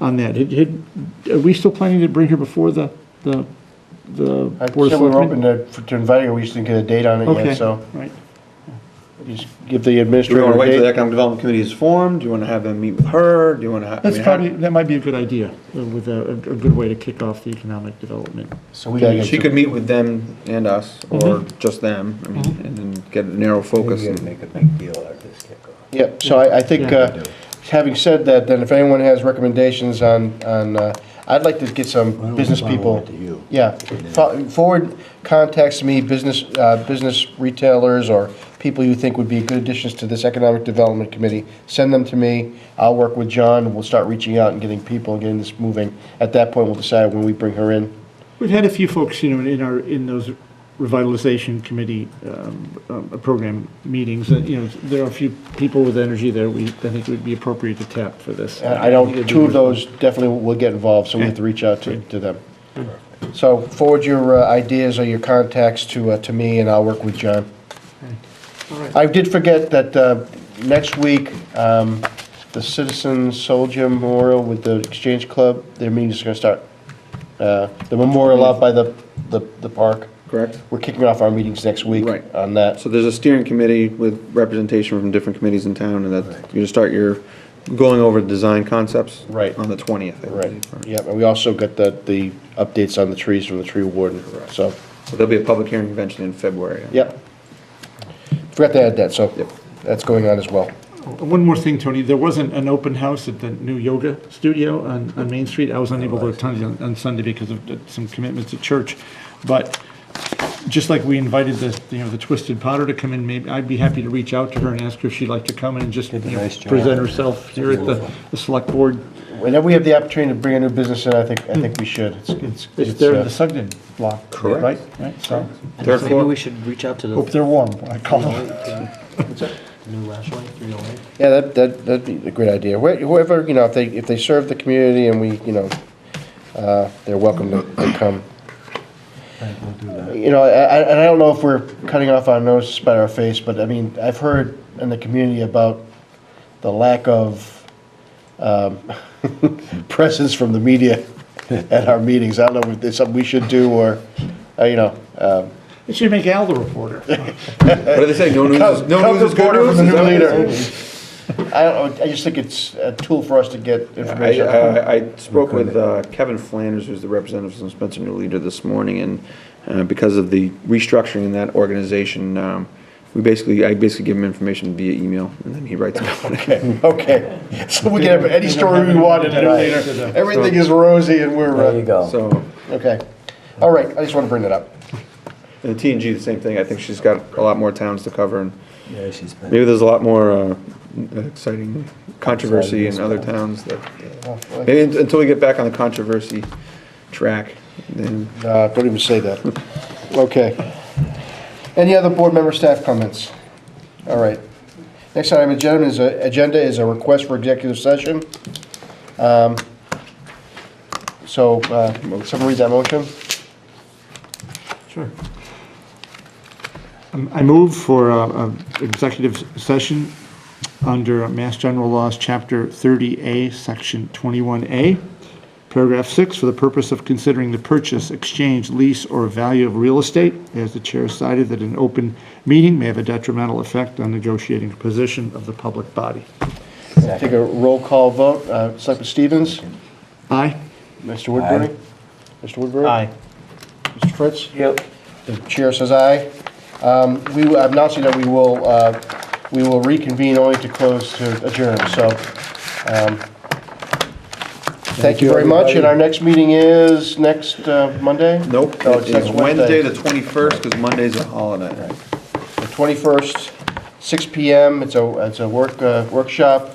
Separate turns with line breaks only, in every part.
on that. Had- had- Are we still planning to bring her before the, the, the
I
Board
said
of
we were open
Selectmen?
to, for- to inviting her, we just didn't get a date on it
Okay,
yet, so
Right.
just give the
Do we
administrator
want to wait
a
till the
date.
economic development committee is formed? Do you want to have them meet with her? Do you want to?
That's probably, that might be a good idea, uh, with a, a a good way to kick off the economic development.
So we gotta get.
She
to-
could meet with them and us,
Mm-hmm.
or just them, I mean, and then get a narrow focus.
Maybe make a big deal out of this kickoff.
Yep, so I, I think,
Yeah.
uh, having said that, then if anyone has recommendations on, on, uh, I'd like to get
Why don't
some
we
business
follow
people.
it to you?
Yeah, Fo- forward contacts to me, business, uh, business retailers or people you think would be good additions to this Economic Development Committee. Send them to me, I'll work with John, we'll start reaching out and getting people and getting this moving. At that point, we'll decide when we bring her in.
We've had a few folks, you know, in our, in those revitalization committee um, um, program meetings, that, you know, there are a few people with energy there we, I think would be appropriate to tap for this.
And I don't, two of those definitely will get involved, so we have to reach out to, to them. So forward your uh, ideas or your contacts to, uh, to me, and I'll work with John. I did forget that uh, next week, um, the Citizen Soldier Memorial with the Exchange Club, their meeting's gonna start. Uh, The memorial out by the, the the park.
Correct.
We're kicking off our meetings next week
Right.
on that.
So there's a steering committee with representation from different committees in town, and that, you start your, going over the design concepts.
Right.
On the twentieth.
Right, yep, and we also got the, the updates on the trees from the tree warden, so,
So there'll be a public hearing convention in February.
yep. Forgot to add that, so
Yep.
that's going on as well.
One more thing, Tony, there wasn't an open house at the new yoga studio on, on Main Street. I was unable to attend on, on Sunday because of uh, some commitments at church. But just like we invited the, you know, the Twisted Potter to come in, maybe, I'd be happy to reach out to her and ask her if she'd like to come in and just, you
Did a
know,
nice job.
present herself here at the, the select board.
Whenever we have the opportunity to bring a new business in, I think, I think we should. It's, it's,
It's
it's,
there in
uh,
the Sugden block.
Correct.
Right, right, so,
Third
Maybe
floor.
we should reach out to
hope
the
they're warm, when I call them.
new oh Lashway, 308.
yeah, that, that, that'd be a great idea. Wh- Whoever, you know, if they, if they serve the community and we, you know, uh, they're welcome to, to come. You know, I- I- and I don't know if we're cutting off our nose by our face, but I mean, I've heard in the community about the lack of um, presence from the media at our meetings. I don't know if it's something we should do or, uh, you know, um,
It should make Al the reporter.
What do they say? No news is, no
Come
news is good
reporter
news?
from the new
Is that what they
leader.
say?
I don't know, I just think it's a tool for us to get
I,
information.
I, I spoke with uh, Kevin Flanders, who's the representative from Spencer New Leader this morning, and uh, because of the restructuring in that organization, um, we basically, I basically give him information via email, and then he writes about it.
Okay, so we can have any story we want in
Right.
later. Everything is rosy and we're,
There you
uh,
go.
So,
okay. All right, I just want to bring that up.
and T and G, the same thing, I think she's got a lot more towns to cover, and
Yeah, she's been.
maybe there's a lot more uh, exciting controversy in other towns that, maybe un- until we get back on the controversy track, then
Uh, Don't even say that. Okay. Any other board member staff comments? All right. Next item on the agenda is a- agenda is a request for executive session. Um, So, uh, someone read that motion?
Sure. Um, I move for uh, uh, executive session under Mass General Laws, Chapter 30A, Section 21A, Paragraph 6, for the purpose of considering the purchase, exchange, lease, or value of real estate, as the chair cited that an open meeting may have a detrimental effect on negotiating position of the public body.
Take a roll call vote. Uh, Selectman Stevens?
Aye?
Mr. Woodbury?
Aye.
Mr. Woodbury? Mr. Fritz? Yep. The chair says aye. Um, We, will- I'm announcing that we will, uh, we will reconvene only to close to adjourn, so. um, Thank you very much, and our next meeting is next uh, Monday?
Nope,
No, it's
it's
next
Wednesday,
Wednesday,
the 21st, because Monday's a holiday.
the 21st, six PM. It's a, it's a work, uh, workshop,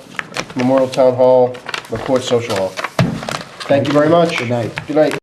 Memorial Town Hall, McCourt Social Hall. Thank you very much.
Good night.
Good night.